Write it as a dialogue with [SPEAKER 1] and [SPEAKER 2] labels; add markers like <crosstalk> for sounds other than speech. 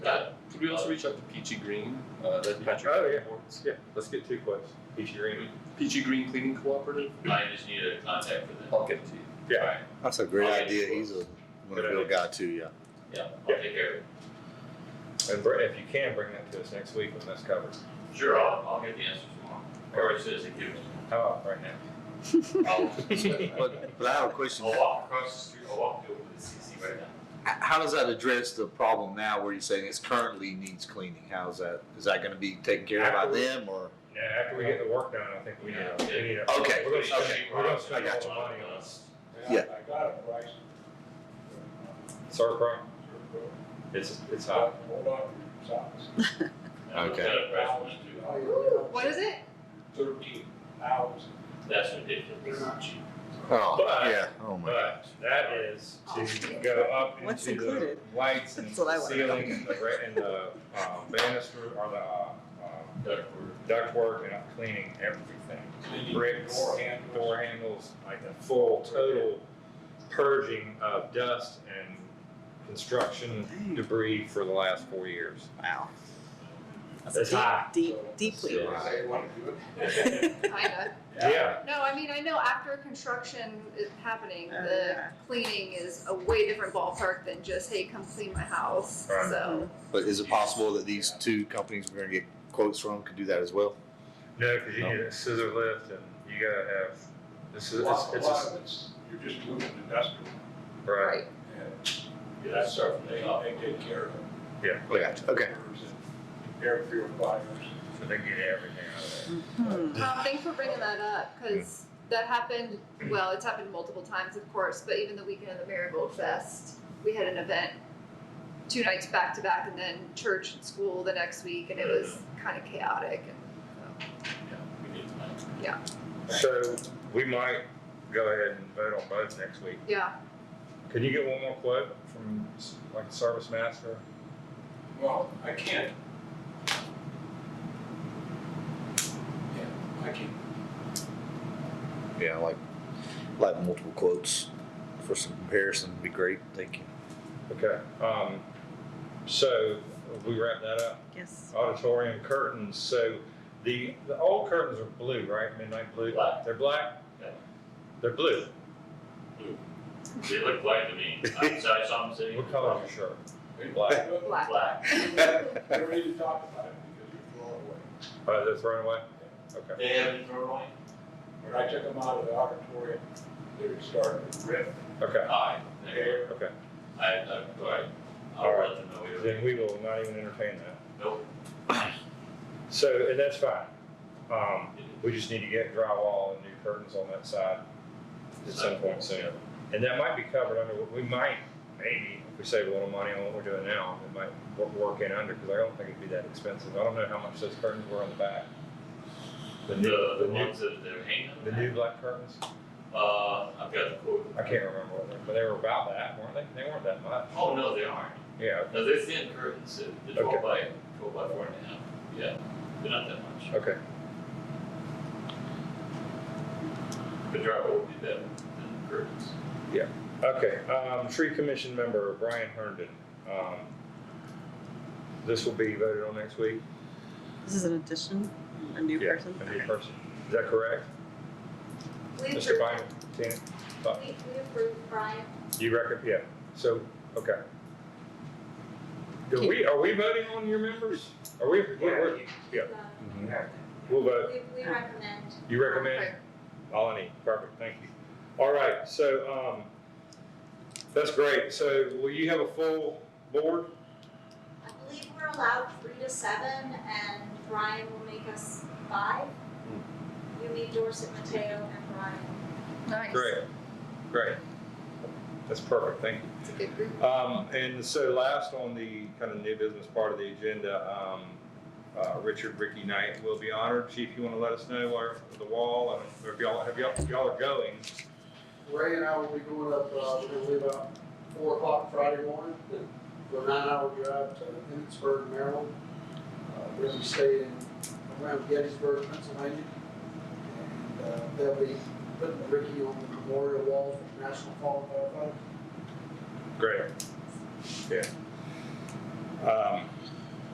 [SPEAKER 1] Could we also reach out to Peachy Green? Uh, that's Patrick.
[SPEAKER 2] Oh, yeah.
[SPEAKER 1] Warren's.
[SPEAKER 2] Yeah, let's get two quotes. Peachy Green.
[SPEAKER 1] Peachy Green Cleaning Cooperative.
[SPEAKER 3] I just need a contact for them.
[SPEAKER 1] I'll get it to you.
[SPEAKER 2] Yeah.
[SPEAKER 3] Alright,
[SPEAKER 4] That's a great
[SPEAKER 3] Alright.
[SPEAKER 4] idea. He's a wonderful
[SPEAKER 2] idea.
[SPEAKER 4] guy too. Yeah.
[SPEAKER 3] yeah, I'll
[SPEAKER 2] Yeah.
[SPEAKER 3] take care of it.
[SPEAKER 2] And br- if you can, bring that to us next week when that's covered.
[SPEAKER 3] Sure, I'll, I'll get the answers tomorrow. Or it says it gives them.
[SPEAKER 2] How about right now? <laughs>
[SPEAKER 4] <laughs>
[SPEAKER 3] I'll,
[SPEAKER 4] But, but I have a
[SPEAKER 2] Oh,
[SPEAKER 4] question.
[SPEAKER 3] I'll walk across the street, I'll walk over to the CC right now.
[SPEAKER 4] H- How does that address the problem now where you're saying it's currently needs cleaning? How's that? Is that going to be taken care of by
[SPEAKER 2] Absolutely.
[SPEAKER 4] them or?
[SPEAKER 2] Yeah, after we get the work done, I think we need,
[SPEAKER 3] Yeah.
[SPEAKER 2] a- we need a.
[SPEAKER 4] Okay,
[SPEAKER 2] We're gonna
[SPEAKER 3] Put it in
[SPEAKER 2] spend,
[SPEAKER 3] sheet
[SPEAKER 2] we're gonna
[SPEAKER 3] rock,
[SPEAKER 2] spend a
[SPEAKER 3] I
[SPEAKER 2] lot
[SPEAKER 3] got
[SPEAKER 2] of
[SPEAKER 3] you.
[SPEAKER 2] money on this.
[SPEAKER 4] Yeah.
[SPEAKER 5] I got a price.
[SPEAKER 2] Circle, it's, it's hot.
[SPEAKER 5] Hold on, socks.
[SPEAKER 3] I'll
[SPEAKER 4] Okay.
[SPEAKER 3] set a price for it, too.
[SPEAKER 6] What is it?
[SPEAKER 5] Thirteen hours.
[SPEAKER 3] That's ridiculous.
[SPEAKER 4] Oh,
[SPEAKER 2] But-
[SPEAKER 4] yeah. Oh my.
[SPEAKER 2] But that is to go up
[SPEAKER 7] What's
[SPEAKER 2] into the
[SPEAKER 7] included?
[SPEAKER 2] lights and
[SPEAKER 7] That's what I wanna know.
[SPEAKER 2] ceiling and the, re- and the, um, banister or the, uh, um,
[SPEAKER 3] Duck
[SPEAKER 2] ductwork and I'm cleaning everything.
[SPEAKER 5] Cleaning
[SPEAKER 2] Bricks,
[SPEAKER 5] door handles.
[SPEAKER 2] door handles, like a full total purging of dust and construction debris for the last four years.
[SPEAKER 7] Wow. That's
[SPEAKER 2] That's
[SPEAKER 7] deep,
[SPEAKER 2] high.
[SPEAKER 7] deep,
[SPEAKER 2] <laughs>
[SPEAKER 7] deeply. <laughs>
[SPEAKER 2] Yeah.
[SPEAKER 5] Say, wanna do it?
[SPEAKER 6] Kinda.
[SPEAKER 2] Yeah,
[SPEAKER 6] No, I mean, I know after construction is happening,
[SPEAKER 7] Oh,
[SPEAKER 6] the
[SPEAKER 7] yeah.
[SPEAKER 6] cleaning is a way different ballpark than just, hey, come clean my house,
[SPEAKER 2] Right.
[SPEAKER 6] so.
[SPEAKER 4] But is it possible that these two companies we're going to get quotes from could do that as well?
[SPEAKER 2] no, cause you
[SPEAKER 4] No.
[SPEAKER 2] need
[SPEAKER 7] Oh.
[SPEAKER 2] a scissor lift and you gotta have, this is,
[SPEAKER 5] A
[SPEAKER 2] it's,
[SPEAKER 5] lot- a
[SPEAKER 2] it's,
[SPEAKER 5] lot
[SPEAKER 2] a-
[SPEAKER 5] of it's, you're just moving industrial.
[SPEAKER 2] right,
[SPEAKER 5] and That's something they, they take care of.
[SPEAKER 2] Oh, yeah,
[SPEAKER 4] Okay. Okay.
[SPEAKER 5] and Air purifiers.
[SPEAKER 2] so they get everything out of there.
[SPEAKER 7] Hmm.
[SPEAKER 6] Um, thanks for bringing that up, cause that happened, well, it's happened multiple times, of course, but even the weekend of the Marigold Fest, we had an event two nights back to back and then church and school the next week, and it was
[SPEAKER 2] Mm-hmm.
[SPEAKER 6] kinda chaotic and,
[SPEAKER 3] Yeah, we did tonight.
[SPEAKER 2] So we might go ahead and vote on both next week.
[SPEAKER 6] so, yeah.
[SPEAKER 2] Can you get one more quote from s- like a service master?
[SPEAKER 5] Well, I can't. Yeah, I can.
[SPEAKER 4] Yeah, like like multiple quotes for some comparison would be great. Thank <laughs> you.
[SPEAKER 2] Okay, um, so we wrap that up.
[SPEAKER 7] Yes.
[SPEAKER 2] Auditorium curtains, so the, the old curtains are blue, right? Midnight blue?
[SPEAKER 3] Black.
[SPEAKER 2] They're black?
[SPEAKER 3] Yeah.
[SPEAKER 2] They're blue.
[SPEAKER 3] They look black to
[SPEAKER 2] <laughs>
[SPEAKER 3] me. I so I saw them sitting.
[SPEAKER 2] What color is your shirt?
[SPEAKER 5] They-
[SPEAKER 2] Black.
[SPEAKER 6] Black.
[SPEAKER 3] Black.
[SPEAKER 4] Mm-hmm.
[SPEAKER 5] They're ready to talk about it because they're far away.
[SPEAKER 2] Uh, they're thrown away? Okay.
[SPEAKER 3] They haven't thrown away.
[SPEAKER 5] When I took them out of the auditorium, they were starting to rip.
[SPEAKER 2] Okay,
[SPEAKER 3] Aye.
[SPEAKER 5] Okay.
[SPEAKER 2] okay.
[SPEAKER 3] I, I, alright,
[SPEAKER 2] All
[SPEAKER 3] I'll
[SPEAKER 2] right.
[SPEAKER 3] let them know we were.
[SPEAKER 2] Then we will not even entertain that.
[SPEAKER 3] Nope.
[SPEAKER 2] So, and that's fine. Um, we just need to get drywall and new curtains on that side at some point soon. And that might be covered under, what we might, maybe, if we save a little money on what we're doing now, it might wor- work in under, because I don't think it'd be that expensive. I don't know how much those curtains were on the back. The new,
[SPEAKER 3] The,
[SPEAKER 2] the
[SPEAKER 3] the
[SPEAKER 2] new,
[SPEAKER 3] ones that they're hanging.
[SPEAKER 2] the new black curtains?
[SPEAKER 3] Uh, I've got the quote.
[SPEAKER 2] I can't remember what they were, but they were about that, weren't they? They weren't that much.
[SPEAKER 3] Oh, no, they aren't.
[SPEAKER 2] Yeah,
[SPEAKER 3] No, they're thin curtains, so the
[SPEAKER 2] Okay.
[SPEAKER 3] twelve by, twelve by four and a half. Yeah, they're not that much.
[SPEAKER 2] okay.
[SPEAKER 3] The drywall will be better than the curtains.
[SPEAKER 2] Okay, um, tree commission member Brian Herndon. Um, this will be voted on next week.
[SPEAKER 7] This is an addition, a new
[SPEAKER 2] Yeah,
[SPEAKER 7] person.
[SPEAKER 2] A new person. Is that correct?
[SPEAKER 6] We
[SPEAKER 2] Mr.
[SPEAKER 6] approve,
[SPEAKER 2] Bynum, Tina,
[SPEAKER 6] we, we approve Brian.
[SPEAKER 2] you reckon, yeah, so, okay. Do we, are we voting on your members? Are we, we're- we're,
[SPEAKER 8] uh,
[SPEAKER 2] yeah, we'll vote.
[SPEAKER 6] we recommend.
[SPEAKER 2] You recommend? All I need, perfect, thank you. All right, so, um, that's great. So will you have a full board?
[SPEAKER 8] I believe we're allowed three to seven, and Brian will make us five. You meet Dorset, Mateo, and Brian.
[SPEAKER 6] Nice.
[SPEAKER 2] Great, great. That's perfect, thank you.
[SPEAKER 6] It's a good group.
[SPEAKER 2] Um, and so last on the kind of new business part of the agenda, um, uh, Richard Ricky Knight will be honored. Chief, you want to let us know where the wall, and or if y'all, have y'all, if y'all are going?
[SPEAKER 9] Ray and I will be going up, uh, we're gonna leave about four o'clock Friday morning, and go nine hour drive to Emmitsburg, Maryland. Uh, we're gonna stay in, around Gettysburg, Pennsylvania. And, uh, they'll be putting Ricky on the memorial wall for National Fall Firefighters.
[SPEAKER 2] Great. Yeah. Um,